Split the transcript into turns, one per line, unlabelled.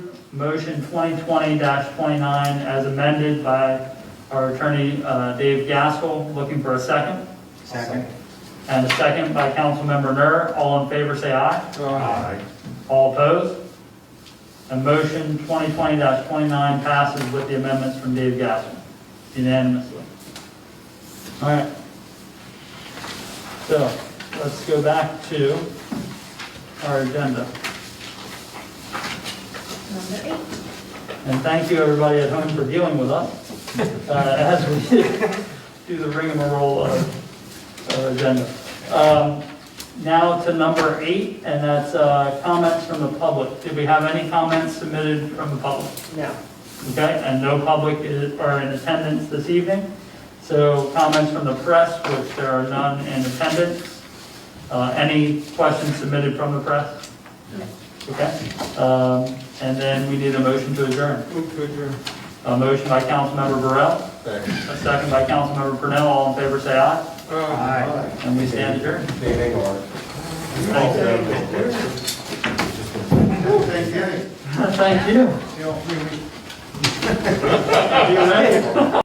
motion 2020-29 as amended by our attorney uh, Dave Gaskell, looking for a second,
Second.
and a second by Councilmember Nur. All in favor, say aye. All opposed? And motion 2020-29 passes with the amendments from Dave Gaskell unanimously. All right. So let's go back to our agenda.
Number eight.
And thank you, everybody at home, for dealing with us uh, as we do the rigmarole of our agenda. Um, Now to number eight, and that's uh, comments from the public. Did we have any comments submitted from the public?
No.
Okay, and no public is- are in attendance this evening. So comments from the press, which there are none in attendance. Uh, Any questions submitted from the press? Okay, um, and then we need a motion to adjourn.
Move to adjourn.
A motion by Councilmember Burrell, a second by Councilmember Purnell, all in favor, say aye.
Aye.
And we stand adjourned.
They make our.
Thank you. Thank you.
You know, we- we-
Are you ready?